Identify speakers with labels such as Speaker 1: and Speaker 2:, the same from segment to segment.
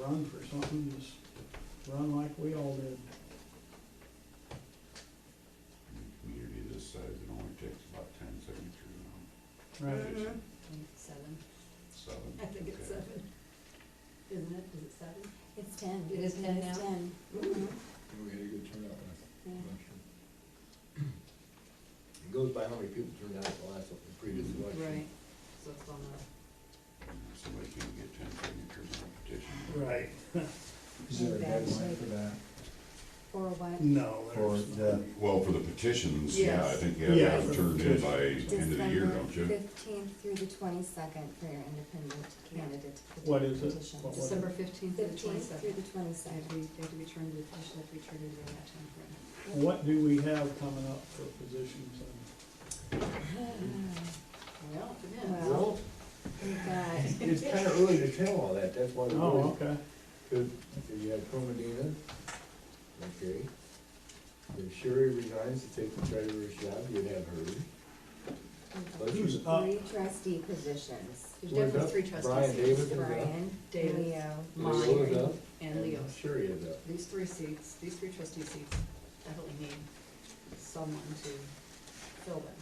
Speaker 1: run for something, just run like we all did.
Speaker 2: Community this size, it only takes about ten signatures on
Speaker 1: Mm-hmm.
Speaker 3: Mhm.
Speaker 4: Seven,
Speaker 2: seven.
Speaker 4: I think it's
Speaker 2: Okay.
Speaker 4: seven. Isn't it, is it seven?
Speaker 3: It's ten.
Speaker 4: It is ten now? Mm-hmm.
Speaker 3: ten.
Speaker 5: We had a good turnout last,
Speaker 3: Yeah.
Speaker 5: last year. It goes by how many people turned out at the last, the previous election.
Speaker 4: Right, so it's on the,
Speaker 2: Somebody can get ten signatures on a petition.
Speaker 1: Right.
Speaker 6: Is there a
Speaker 3: That's
Speaker 6: deadline
Speaker 3: like-
Speaker 6: for that?
Speaker 3: Or what?
Speaker 1: No,
Speaker 6: For
Speaker 1: there's.
Speaker 6: the-
Speaker 1: not.
Speaker 2: Well, for the petitions, yeah, I
Speaker 4: Yes.
Speaker 2: think you have to have
Speaker 1: Yeah.
Speaker 2: them turned in by end of the year, don't
Speaker 3: December
Speaker 2: you?
Speaker 6: Fifteenth through the twenty-second for your independent candidate
Speaker 1: What is it?
Speaker 6: petition.
Speaker 1: What was it?
Speaker 4: December fifteenth to the
Speaker 3: Fifteenth through
Speaker 4: twenty-second.
Speaker 3: the
Speaker 4: They have
Speaker 3: twenty-second.
Speaker 4: to be, they have to be turned to the commission, they have to be turned in during that timeframe.
Speaker 1: What do we have coming up for positions and
Speaker 4: Well,
Speaker 3: Well,
Speaker 5: Well,
Speaker 3: We've got,
Speaker 5: it's kind of early to tell all that, that's why we're
Speaker 1: Oh,
Speaker 5: doing
Speaker 1: okay.
Speaker 5: Good, so you have Comadina, okay. If Sherry resigns to take the treasurer's job, you'd have her. Let's
Speaker 1: Who's
Speaker 5: use-
Speaker 1: up?
Speaker 3: three trustee positions.
Speaker 4: There's
Speaker 5: Who is
Speaker 4: definitely
Speaker 5: up?
Speaker 4: three trustees.
Speaker 5: Brian Davis is up.
Speaker 3: Brian,
Speaker 4: David.
Speaker 3: Leo,
Speaker 5: Leo is
Speaker 4: Mine
Speaker 5: up.
Speaker 4: and Leo.
Speaker 5: Sherry is up.
Speaker 4: These three seats, these three trustee seats definitely need someone to fill them.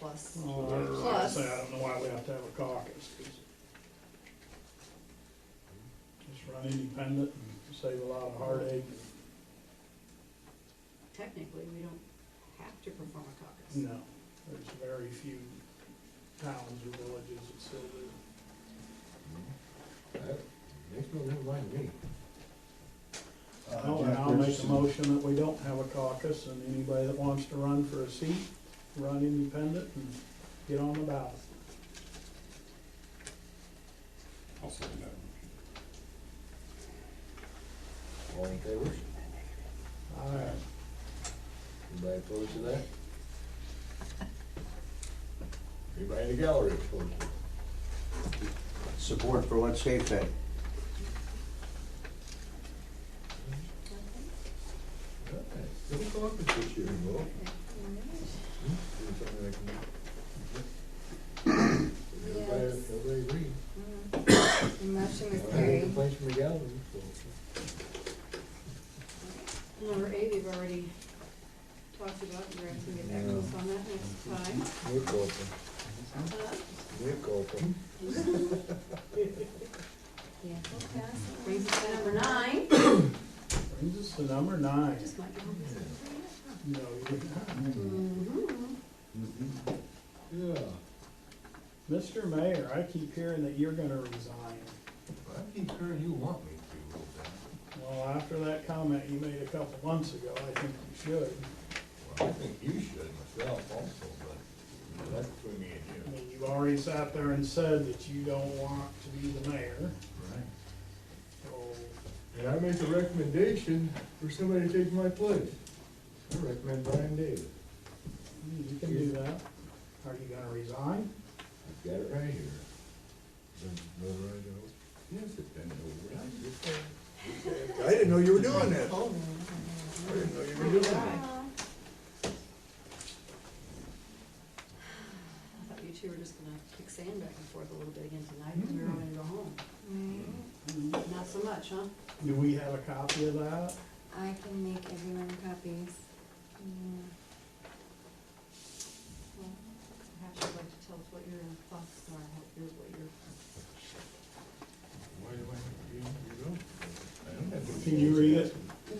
Speaker 4: Plus,
Speaker 1: Well, I- like I
Speaker 4: Plus-
Speaker 1: say, I don't know why we have to have a caucus. 'cause Just run independent and save a lot of heartache.
Speaker 4: technically, we don't have to perform a caucus.
Speaker 1: No, there's very few towns or villages that still do.
Speaker 5: Uh, Next one, never mind me.
Speaker 6: Uh,
Speaker 1: No, and
Speaker 6: Jack
Speaker 1: I'll make a
Speaker 6: Richardson.
Speaker 1: motion that we don't have a caucus, and anybody that wants to run for a seat, run independent and get on the ballot.
Speaker 2: I'll second that one.
Speaker 5: All in favor?
Speaker 1: All right.
Speaker 5: Anybody opposed to that? Anybody in the gallery opposed to it?
Speaker 7: Support for what State said.
Speaker 5: All right, Let me go up with this year, Will. Do something I can- Everybody,
Speaker 3: Yes.
Speaker 5: everybody agree?
Speaker 3: The motion was
Speaker 5: I have any
Speaker 3: carried.
Speaker 5: complaints from the gallery, so.
Speaker 4: Number eight, we've already talked about, we're going to get back to us on that next time.
Speaker 5: We're open.
Speaker 4: Uh,
Speaker 5: We're open.
Speaker 3: Yeah, we'll pass it.
Speaker 4: Brings us to number nine.
Speaker 1: Brings us to number nine.
Speaker 4: Just might be home this afternoon.
Speaker 1: No, you're not.
Speaker 4: Mhm.
Speaker 5: Yeah,
Speaker 1: Mr. Mayor, I keep hearing that you're gonna resign.
Speaker 5: I keep hearing you want me to, Will, Dan.
Speaker 1: Well, after that comment you made a couple months ago, I think you should.
Speaker 5: Well, I think you should myself also, but you know, that's between me and
Speaker 1: I
Speaker 5: you.
Speaker 1: mean, you've already sat there and said that you don't want to be the mayor,
Speaker 5: Right.
Speaker 1: so
Speaker 5: And I make a recommendation for somebody to take my place. I recommend Brian Davis.
Speaker 1: hmm, you can do that. Are you gonna resign?
Speaker 5: I've got it right here. Yes, it's been over. I didn't know you were doing that. I didn't know you were doing that.
Speaker 4: I thought you two were just gonna kick sand back and forth a little bit again tonight, and we were gonna go home. Not so much, huh?
Speaker 1: Do we have a copy of that?
Speaker 3: I can make everyone copies. Mm.
Speaker 4: Well, Perhaps you'd like to tell us what your thoughts are, what your, what your,
Speaker 5: Why do I have to be in your room? I don't have to.
Speaker 1: Can you read it?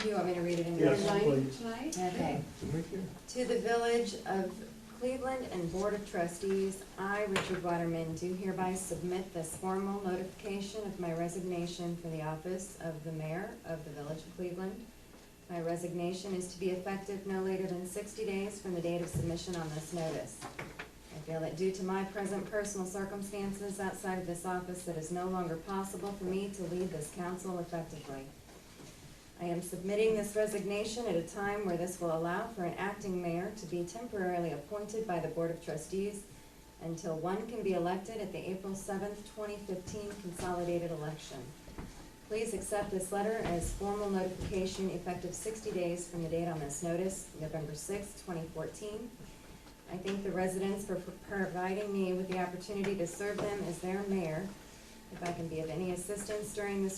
Speaker 3: You want me to read it in?
Speaker 1: Yes,
Speaker 3: Nine?
Speaker 1: please.
Speaker 4: tonight?
Speaker 3: Okay.
Speaker 5: It's right there.
Speaker 3: To the Village of Cleveland and Board of Trustees, I, Richard Waterman, do hereby submit this formal notification of my resignation from the office of the mayor of the Village of Cleveland. My resignation is to be effective no later than sixty days from the date of submission on this notice. I feel that due to my present personal circumstances outside of this office, it is no longer possible for me to lead this council effectively. I am submitting this resignation at a time where this will allow for an acting mayor to be temporarily appointed by the Board of Trustees until one can be elected at the April seventh, twenty fifteen consolidated election. Please accept this letter as formal notification effective sixty days from the date on this notice, November sixth, twenty fourteen. I thank the residents for pro- providing me with the opportunity to serve them as their mayor If I can be of any assistance during this